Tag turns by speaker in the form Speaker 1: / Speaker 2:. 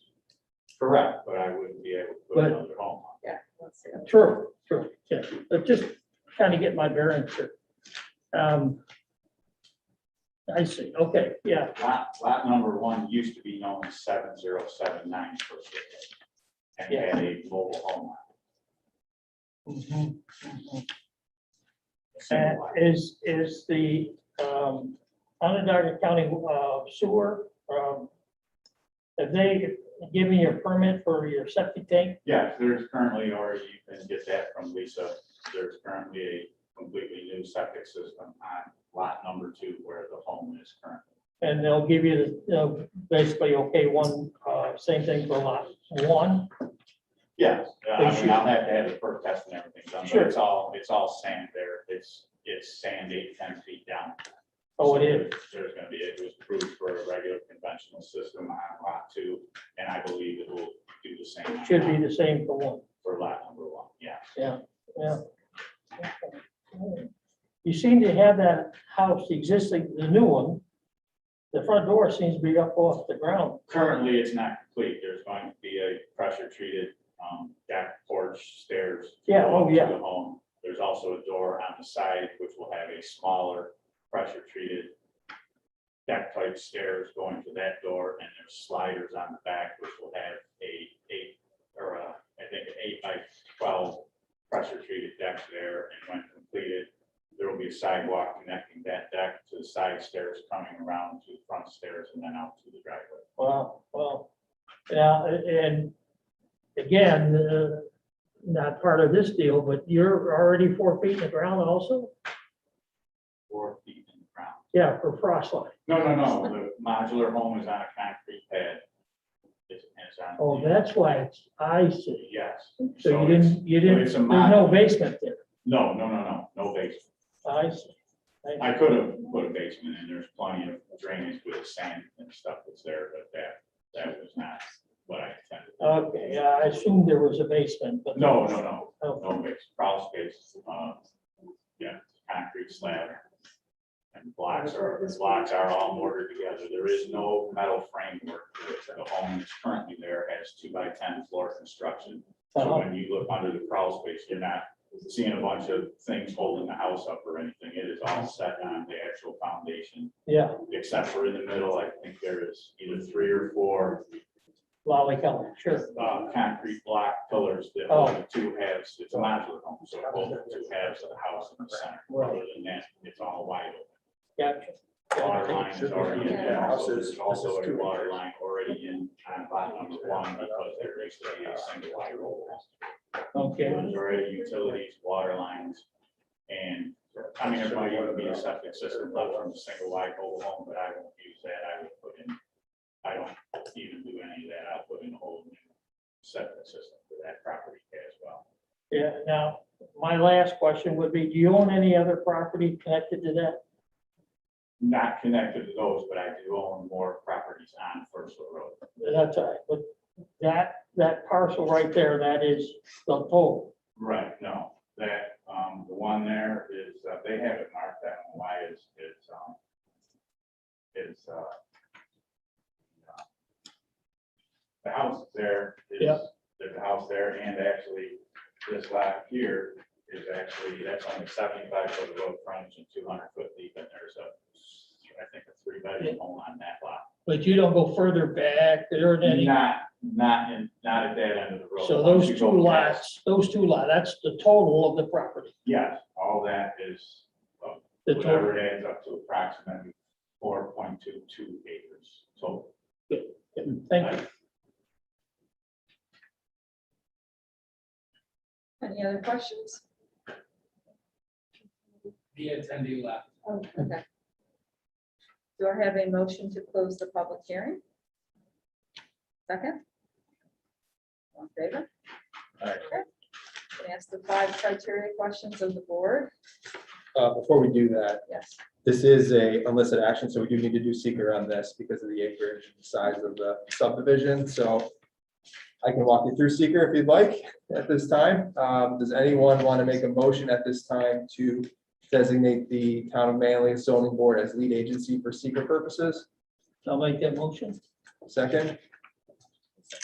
Speaker 1: Correct.
Speaker 2: but I wouldn't be able to put
Speaker 3: But-
Speaker 2: another home on.
Speaker 4: Let's see.
Speaker 3: True, true, yeah, but just trying to get my bearings here. Um, I see, okay, yeah,
Speaker 2: Lot, lot number one used to be known as seven zero seven nine for a period. And
Speaker 3: Yeah.
Speaker 2: had a mobile home. on
Speaker 3: Mhm, mhm.
Speaker 2: it,
Speaker 3: And
Speaker 2: single lot.
Speaker 3: is, is the um, Onondaga County uh, Sewer, um, have they given you a permit for your septic tank?
Speaker 2: Yes, there's currently, or you can get that from Lisa, there's currently a completely new septic system on lot number two where the home is currently.
Speaker 3: And they'll give you, the they'll basically, okay, one, uh, same thing for lot one?
Speaker 2: Yes, I
Speaker 3: They
Speaker 2: mean,
Speaker 3: should-
Speaker 2: I'll have to have the perk test and everything done, but it's all, it's all sand there, it's, it's sand eight, ten feet down.
Speaker 3: Oh, it is,
Speaker 2: So There's gonna be, it was approved for a regular conventional system on lot two, and I believe it will do the same. on
Speaker 3: should
Speaker 2: lot-
Speaker 3: be the same for one.
Speaker 2: For lot number one, yeah.
Speaker 3: Yeah. You seem to have that house, the existing, the new one, the front door seems to be up off the ground.
Speaker 2: Currently, it's not complete, there's going to be a pressure treated, um, deck porch stairs.
Speaker 3: Yeah, oh,
Speaker 2: to
Speaker 3: yeah.
Speaker 2: The home, there's also a door on the side which will have a smaller pressure treated. Deck type stairs going to that door and there's sliders on the back which will have a eight or a, I think an eight by twelve. Pressure treated deck there and when completed, there will be a sidewalk connecting that deck to the side stairs coming around to the front stairs and then out to the driveway.
Speaker 3: Well, well, yeah, a- and again, uh, not part of this deal, but you're already four feet in the ground also?
Speaker 2: four feet in the ground.
Speaker 3: Yeah, for frost line.
Speaker 2: No, no, no, the modular home is on a concrete pad. It's, it's on.
Speaker 3: Oh, that's why it's, I see.
Speaker 2: Yes.
Speaker 3: So you
Speaker 2: it's-
Speaker 3: didn't, you didn't,
Speaker 2: it's a
Speaker 3: there's
Speaker 2: mod-
Speaker 3: no basement there.
Speaker 2: No, no, no, no, no basement.
Speaker 3: I see.
Speaker 2: I could have put a basement in, there's plenty of drainage with sand and stuff that's there, but that, that was not what I intended.
Speaker 3: Okay, yeah, I assumed there was a basement, but. Oh,
Speaker 2: No, no, no,
Speaker 3: Okay.
Speaker 2: no basement, crawl space, uh, yeah, concrete slab. And blocks are, blocks are all mortared together, there is no metal framework, to it. the home that's currently there has two by ten floor construction. So
Speaker 3: Uh-huh.
Speaker 2: when you look under the crawl space, you're not seeing a bunch of things holding the house up or anything. It is all set on the actual foundation,
Speaker 3: Yeah,
Speaker 2: except for in the middle, I think there is either three or four
Speaker 3: lolly color, sure.
Speaker 2: uh, concrete block pillars that
Speaker 3: Oh.
Speaker 2: hold the two halves. It's a modular home, so it holds the two halves of the house in the center. Other than that, it's all wide open.
Speaker 3: Gotcha.
Speaker 2: Water line is already in there. Also,
Speaker 1: Houses-
Speaker 2: There's also
Speaker 1: houses
Speaker 2: a
Speaker 1: too.
Speaker 2: water line already in on lot number one because there is a single wide road.
Speaker 3: Okay,
Speaker 2: There's already utilities, water lines, and, I mean, there might even be a septic system left from a single wide mobile home, but I won't use that, I would put in, I don't even do any of that, I'll put in a whole new septic system for that property as well.
Speaker 3: yeah, now, my last question would be, do you own any other property connected to that?
Speaker 2: Not connected to those, but I do own more properties on First Road.
Speaker 3: That's all right, but that, that parcel right there, that is the pole.
Speaker 2: Right, no, that, um, the one there is, uh, they have it marked that one, why is, it's, um, it's, uh, uh, the house there is,
Speaker 3: Yeah.
Speaker 2: there's a house there, and actually, this lot here is actually, that's only seventy-five foot of road frontage and two hundred foot deep, and there's a, I think, a three-bedroom home on that lot.
Speaker 3: But you don't go further back, there are any,
Speaker 2: Not, not in, not at that end of the road.
Speaker 3: so
Speaker 2: Once
Speaker 3: those
Speaker 2: you
Speaker 3: two
Speaker 2: go past-
Speaker 3: lots, those two lots, that's the total of the property.
Speaker 2: Yes, all that is
Speaker 3: The total,
Speaker 2: Whatever it adds up to approximately four point two two acres total.
Speaker 3: thank you.
Speaker 4: Any other questions?
Speaker 5: the attendee left.
Speaker 4: Oh, okay. Do I have a motion to close the public hearing? Second? All in favor?
Speaker 1: Aye.
Speaker 4: Okay. Can I ask the five criteria questions of the board?
Speaker 1: Uh, before we do that,
Speaker 4: Yes.
Speaker 1: this is a illicit action, so we do need to do seeker on this because of the acreage and size of the subdivision, so. I can walk you through seeker if you'd like at this time. Um, does anyone want to make a motion at this time to designate the town of Manly zoning board as lead agency for seeker purposes?
Speaker 3: I'll make that motion.
Speaker 1: Second,